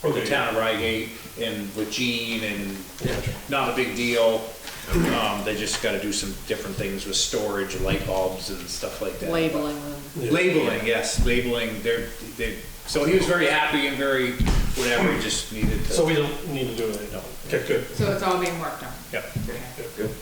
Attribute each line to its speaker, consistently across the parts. Speaker 1: for the town of Reigate and with Gene and not a big deal. Um, they just gotta do some different things with storage, light bulbs and stuff like that.
Speaker 2: labeling them.
Speaker 1: Labeling, yes, labeling, they're, they, so he was very happy and very whatever, he just needed to.
Speaker 3: So we don't need to do anything.
Speaker 1: No.
Speaker 3: Okay, good.
Speaker 2: So it's all being worked on.
Speaker 1: Yeah.
Speaker 2: Okay.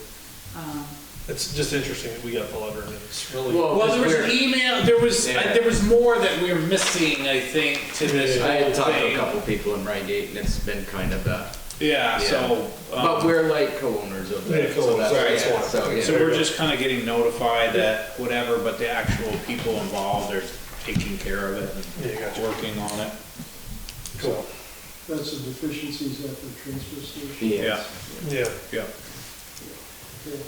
Speaker 3: It's just interesting that we got the letter and it's really.
Speaker 4: Well,
Speaker 1: Well, there was an
Speaker 4: weird.
Speaker 1: email, there was,
Speaker 4: Oh, Yeah.
Speaker 1: I- there was more that we were missing, I think, to this
Speaker 4: I had
Speaker 1: whole
Speaker 4: talked to a
Speaker 1: thing.
Speaker 4: couple people in Reigate and it's been kind of a,
Speaker 1: Yeah, so,
Speaker 4: but
Speaker 1: um,
Speaker 4: we're like co-owners of
Speaker 3: Yeah,
Speaker 4: that. so
Speaker 3: co-owners,
Speaker 4: that's-
Speaker 3: right, that's
Speaker 4: yeah,
Speaker 3: why.
Speaker 4: So, yeah.
Speaker 1: so we're just kinda getting notified that whatever, but the actual people involved are taking care of it
Speaker 3: Yeah, gotcha.
Speaker 1: and working on it.
Speaker 3: Cool.
Speaker 5: That's the deficiencies at the transfer station.
Speaker 1: Yeah,
Speaker 4: Yes.
Speaker 3: Yeah.
Speaker 1: yeah.
Speaker 5: Okay.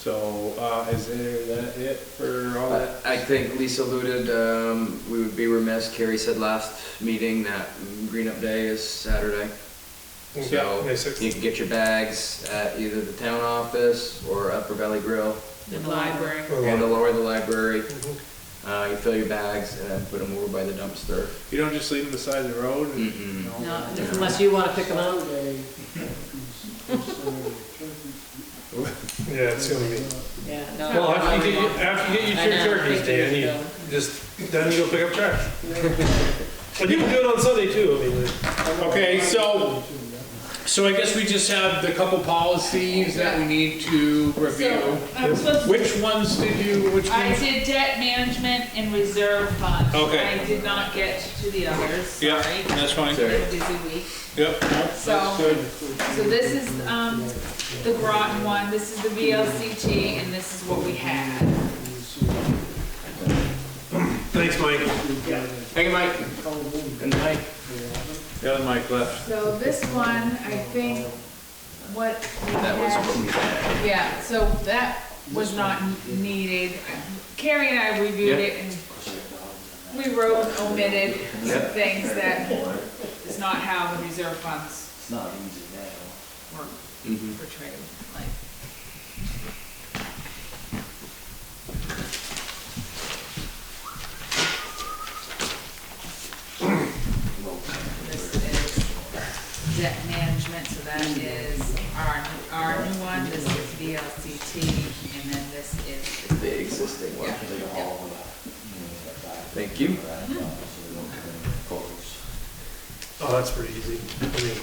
Speaker 1: So, uh, is there that it for all that?
Speaker 4: I think Lisa alluded, um, we would be remiss, Carrie said last meeting that Green Up Day is Saturday.
Speaker 3: Yeah,
Speaker 4: So
Speaker 3: May sixth.
Speaker 4: you can get your bags at either the town office or Upper Valley Grill
Speaker 2: In the library.
Speaker 3: Or
Speaker 4: and the
Speaker 3: like-
Speaker 4: lower the library.
Speaker 3: Mhm.
Speaker 4: Uh, you fill your bags and then put them over by the dumpster. Mm-hmm.
Speaker 1: You don't just leave them beside the road and?
Speaker 4: Mm-mm.
Speaker 1: No.
Speaker 2: No, unless you want to pick them up.
Speaker 5: Saturday, Saturday,
Speaker 3: Yeah, it's gonna be.
Speaker 2: Yeah. no,
Speaker 3: Well,
Speaker 2: Uh, I
Speaker 3: after you get,
Speaker 2: wouldn't.
Speaker 3: your- after you
Speaker 2: I
Speaker 3: get your
Speaker 2: know,
Speaker 3: two turkeys,
Speaker 2: I think
Speaker 3: Dan,
Speaker 2: we
Speaker 3: you
Speaker 2: should
Speaker 3: just, then you go pick up trash. But you can do it on Sunday too, I mean,
Speaker 1: Okay, so- So I guess we just have the couple policies that we need to review.
Speaker 6: So, I was supposed to-
Speaker 1: Which ones did you, which
Speaker 6: I
Speaker 1: ones?
Speaker 6: did debt management and reserve fund.
Speaker 1: Okay.
Speaker 6: I did not get to the others,
Speaker 1: Yeah,
Speaker 6: sorry.
Speaker 1: that's fine.
Speaker 4: Sorry.
Speaker 6: Been a busy week.
Speaker 1: Yep, no, that's
Speaker 6: So-
Speaker 1: good.
Speaker 6: So this is, um, the Groton one, this is the VLCT, and this is what we had.
Speaker 3: thanks, Mike.
Speaker 4: Hey, Mike. Good night.
Speaker 1: The other mic left.
Speaker 6: So this one, I think, what we
Speaker 4: That was
Speaker 6: had.
Speaker 4: what we had.
Speaker 6: Yeah, so that was not needed. Carrie and I reviewed
Speaker 4: Yeah.
Speaker 6: it and we wrote and omitted some
Speaker 4: Yeah.
Speaker 6: things that is not how the reserve funds. It's not easy now. Were
Speaker 4: Mhm.
Speaker 6: portrayed, like. This is debt management, so that is our, our new one, this is VLCT, and then this is the
Speaker 4: The existing one.
Speaker 6: Yeah.
Speaker 4: Thank you.
Speaker 3: Oh, that's pretty easy. I mean,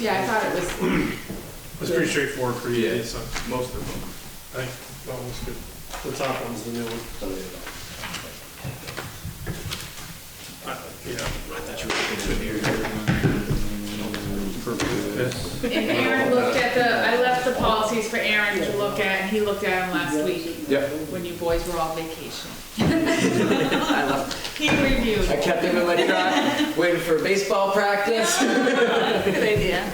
Speaker 6: Yeah, I thought it was,
Speaker 3: it's pretty straightforward, pretty
Speaker 4: Yeah.
Speaker 3: easy, so
Speaker 4: Most of them.
Speaker 3: I think that one's good. The top one's the new one. Uh, Yeah.
Speaker 6: and Aaron looked at the, I left the policies for Aaron to look at, and he looked at them last week,
Speaker 4: Yep.
Speaker 6: when you boys were on vacation.
Speaker 4: I left.
Speaker 6: He reviewed.
Speaker 4: I kept them in my truck, waiting for baseball practice.
Speaker 6: Good idea.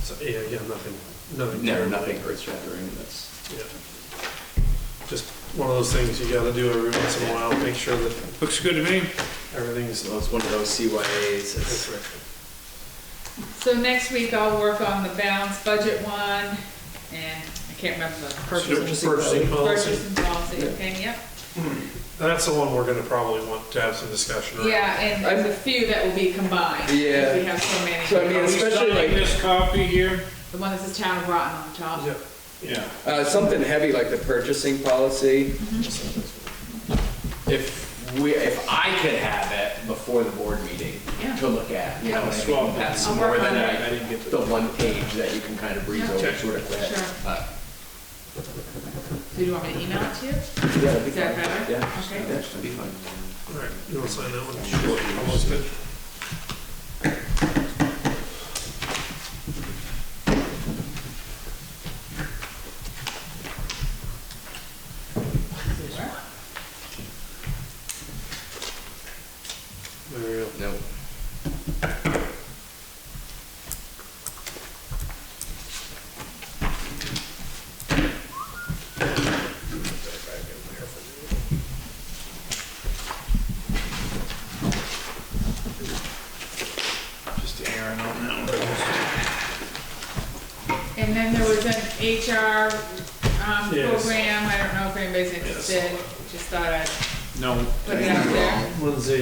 Speaker 3: So, yeah, again, nothing, nothing.
Speaker 4: No, nothing earth shattering. That's
Speaker 3: Yeah. Just one of those things you gotta do every once in a while, make sure that
Speaker 1: Looks good to me.
Speaker 3: everything's.
Speaker 4: well, it's one of those CYAs.
Speaker 3: That's
Speaker 4: It's,
Speaker 3: right.
Speaker 6: So next week I'll work on the balanced budget one, and I can't remember the purchasing.
Speaker 3: Purchasing policy.
Speaker 6: Purchasing policy, okay, yep.
Speaker 3: That's the one we're gonna probably want to have some discussion around.
Speaker 6: Yeah, and there's a few that will be combined. 'cause
Speaker 4: Yeah.
Speaker 6: We have so many.
Speaker 4: So I mean,
Speaker 1: Are we
Speaker 4: especially
Speaker 1: signing
Speaker 4: like
Speaker 1: this copy here?
Speaker 6: The one that says town of Groton on the top.
Speaker 3: Yeah.
Speaker 1: Yeah.
Speaker 4: uh, something heavy like the purchasing policy. Mm-hmm. If we, if I could have it before the board meeting
Speaker 6: Yeah.
Speaker 4: to look at, you know, what I mean?
Speaker 1: Swap.
Speaker 4: that's
Speaker 6: I'll
Speaker 4: more
Speaker 6: work
Speaker 4: than
Speaker 6: on
Speaker 4: I,
Speaker 6: it.
Speaker 1: I didn't get the.
Speaker 4: the one page that you can kind of breeze
Speaker 6: Yeah.
Speaker 4: over sort of quick.
Speaker 6: Sure.
Speaker 4: Uh,
Speaker 6: So do you want me to email it to you?
Speaker 4: yeah, that'd be
Speaker 6: Is that
Speaker 4: fine.
Speaker 6: better?
Speaker 4: Yeah.
Speaker 6: Okay.
Speaker 4: Yeah, that'd be fine.
Speaker 3: All right, you wanna sign that one? Sure. Almost good. There we go.
Speaker 4: No.
Speaker 1: Just Aaron on that
Speaker 6: And then there was an HR um,
Speaker 3: Yes.
Speaker 6: program, I don't know if anybody's interested, just thought I'd
Speaker 1: one. No.
Speaker 6: put it out there.
Speaker 3: Lindsay,